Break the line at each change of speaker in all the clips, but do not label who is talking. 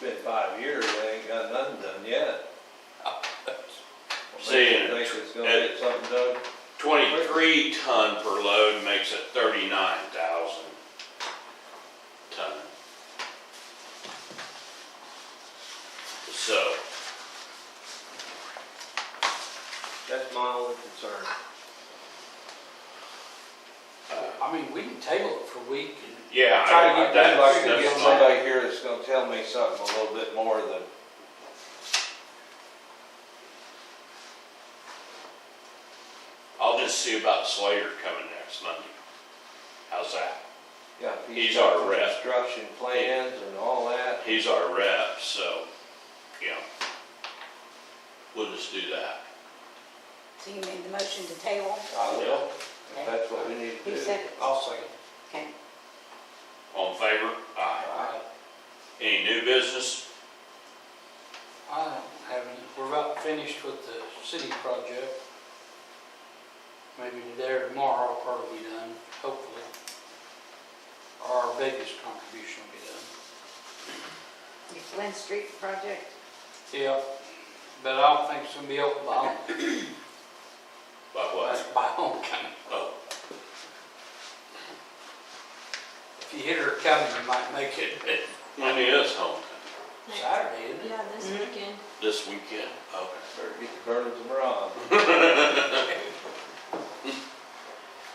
been five years, they ain't got nothing done yet.
Seeing
Think
it-
it's gonna get something done?
Twenty-three ton per load makes it thirty-nine thousand ton. So,
That's my only concern.
I mean, we can table it for a week and
yeah,
Try to
I-
get
I'd
that's,
like to get
that's my,
somebody here that's gonna tell me something a little bit more than,
I'll just see about Slater coming next Monday. How's that?
yeah. if
He's
got
our
some
rep.
Construction plans and all that.
He's our rep, so, you know, we'll just do that.
So you made the motion to table?
I will, if that's what we need to
He
do.
said,
I'll second.
okay.
All in favor? Aye.
I,
Any new business?
I don't have any, we're about finished with the city project. Maybe today or tomorrow will probably be done, hopefully. Our biggest contribution will be done.
Your Flynn Street project,
Yep, but I don't think it's gonna be open by, Home-
By what?
by homecoming.
Oh,
If you hit her coming, you might make it
when is homecoming?
Saturday, isn't it?
Yeah, this weekend.
This weekend? Okay.
Better get the burners and bronze.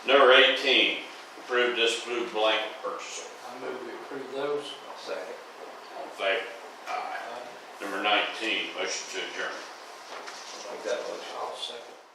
Number eighteen, approve disapprove blanket purchase order.
I move we approve those.
Second.
All in favor? Aye.
Uh,
Number nineteen, motion to adjourn.
Make that motion.
I'll second.